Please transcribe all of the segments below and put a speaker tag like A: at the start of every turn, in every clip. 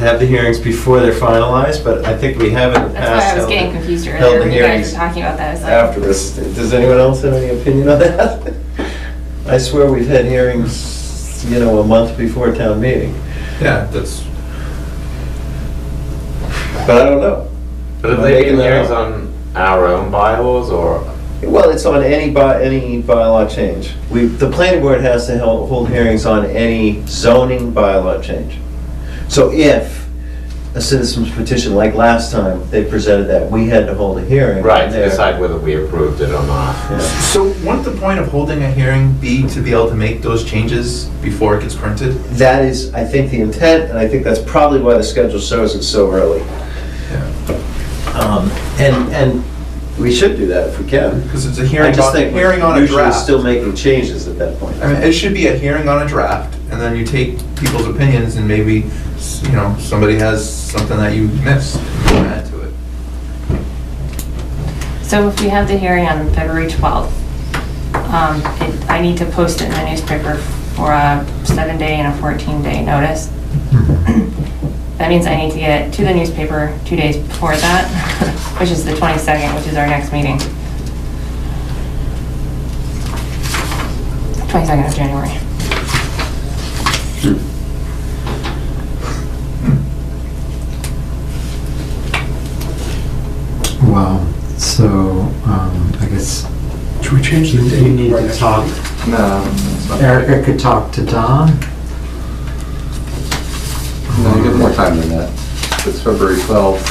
A: have the hearings before they're finalized, but I think we haven't passed.
B: That's why I was
A: held-
B: getting confused
A: held
B: earlier
A: the
B: when you guys
A: hearings
B: were talking about that. I was like,
A: after this. Does anyone else have any opinion on that? I swear we've had hearings, you know, a month before town meeting,
C: Yeah, that's,
A: but I don't know.
D: But
A: I'm
D: have they
A: making
D: been
A: that
D: hearings
A: up.
D: on our own bylaws or?
A: Well, it's on any by, any bylaw change. We, the planning board has to hel- hold hearings on any zoning bylaw change. So if a citizen's petition, like last time, they presented that, we had to hold a hearing.
D: Right, to
A: there.
D: decide whether we approved it or not.
A: Yeah.
C: so wouldn't the point of holding a hearing be to be able to make those changes before it gets printed?
A: That is, I think, the intent, and I think that's probably why the schedule shows it so early. Um, And, and we should do that if we can.
C: Because it's a
A: I
C: hearing
A: just
C: on,
A: think
C: hearing on
A: we're
C: a
A: usually
C: draft.
A: still making changes at that point.
C: I mean, it should be a hearing on a draft, and then you take people's opinions, and maybe, s- you know, somebody has something that you missed, you can add to it.
B: So if we have the hearing on February 12th, um, it- I need to post it in the newspaper for a seven-day and a 14-day notice. That means I need to get it to the newspaper two days before that, which is the 22nd, which is our next meeting. 22nd of January.
E: Wow. So, um, I guess
F: Should we change the date?
G: You need to talk,
C: No.
H: um,
E: Erica could talk to Don.
H: No, you get more time than that. It's February 12th.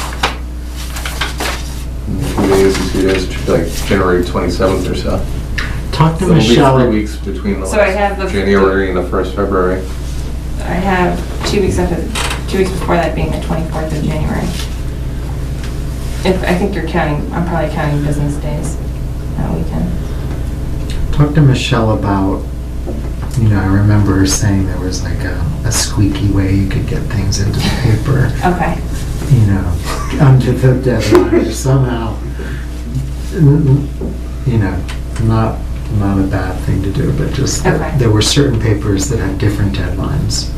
H: In Two days, and two days, it should be like January 27th or so.
E: Talk to
H: So it'll be
E: Michelle.
H: Three weeks between the
B: So I have the-
H: last January and the first February.
B: I have two weeks after, two weeks before that being the 24th of January. If, I think you're counting, I'm probably counting business days that weekend.
E: Talk to Michelle about. You know, I remember her saying there was like a, a squeaky way you could get things into the paper.
B: Okay.
E: You know, under the deadline or somehow. You know, not not a bad thing to do, but just that
B: Okay.
E: there were certain papers that had different deadlines.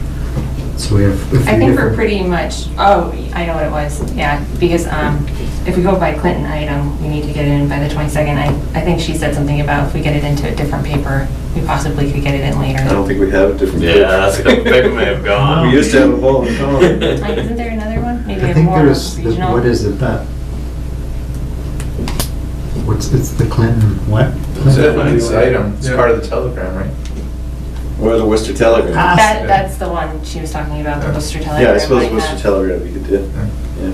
E: So we have. a few
B: I think we're
E: different-
B: pretty much, oh, I know what it was, yeah, because um, if we go by Clinton item, we need to get it in by the 22nd. I, I think she said something about if we get it into a different paper, we possibly could get it in later.
A: I don't think we have a different.
D: Yeah, that's good. They may have gone.
A: We used to have a whole, oh,
B: Like, Isn't there another one? Maybe
E: I
B: a
E: think
B: more
E: there's, there's-
B: regional?
E: what is it, that? What's, it's the Clinton, what?
C: It's an item, it's part of the telegram, right?
A: or the Worcester Telegram.
E: Ah.
B: That, that's the one she was talking about, the Worcester Telegram.
A: Yeah, I suppose
B: like
A: Worcester
B: that.
A: Telegram we could do, yeah.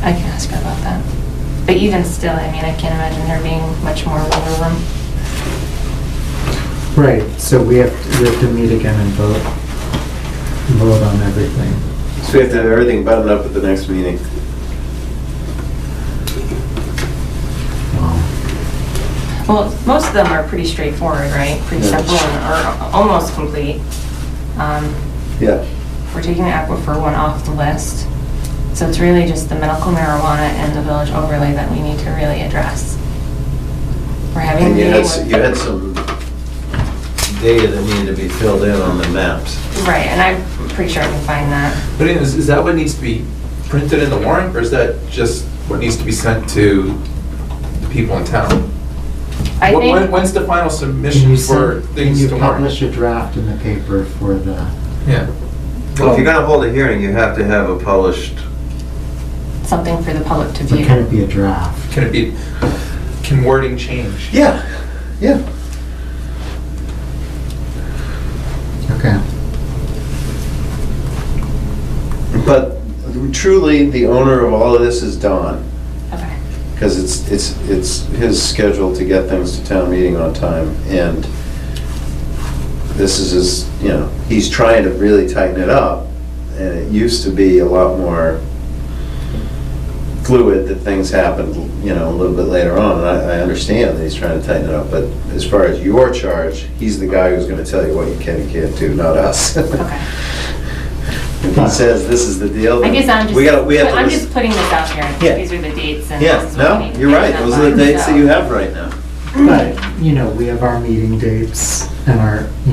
B: I can ask her about that. But even still, I mean, I can't imagine there being much more wiggle room.
E: Right, so we have, we have to meet again and vote, vote on everything.
A: So we have to have everything buttoned up at the next meeting.
E: Wow.
B: Well, most of them are pretty straightforward, right? Pretty
A: Yeah.
B: simple and are almost complete. Um,
A: Yeah,
B: We're taking the aquifer one off the list. So it's really just the medical marijuana and the village overlay that we need to really address. We're having a
A: and you
B: meeting
A: had, s-
B: with...
A: you had some data that needed to be filled in on the maps.
B: Right, and I'm pretty sure I can find that.
C: But is, is that what needs to be printed in the warrant, or is that just what needs to be sent to the people in town?
B: I
C: When- when-
B: think-
C: When's the final
E: Can
C: submission
E: you
C: for
E: send, can
C: things
E: you
C: to warrant?
E: publish a draft in the paper for the,
C: Yeah.
H: Well, if you're gonna hold a hearing, you have to have a published,
B: something for the public to
E: but
B: view.
E: can it be a draft?
C: Can it be, can wording change?
A: Yeah, yeah.
E: Okay.
A: But truly, the owner of all of this is Don,
B: Okay.
A: because it's, it's, it's his schedule to get things to town meeting on time, and this is his, you know, he's trying to really tighten it up, and it used to be a lot more fluid that things happened, you know, a little bit later on, and I, I understand that he's trying to tighten it up, but as far as your charge, he's the guy who's gonna tell you what you can and can't do, not us.
B: Okay.
A: If he says this is the deal,
B: I guess I'm just,
A: we gotta, we have to
B: I'm
A: listen.
B: just putting this out here.
A: Yeah.
B: These are the dates and
A: Yeah,
B: this is what we
A: no,
B: need. to
A: you're
B: get
A: right,
B: done
A: those are the
B: by,
A: dates that
B: so.
A: you have right now.
E: But, you know, we have our meeting dates and our,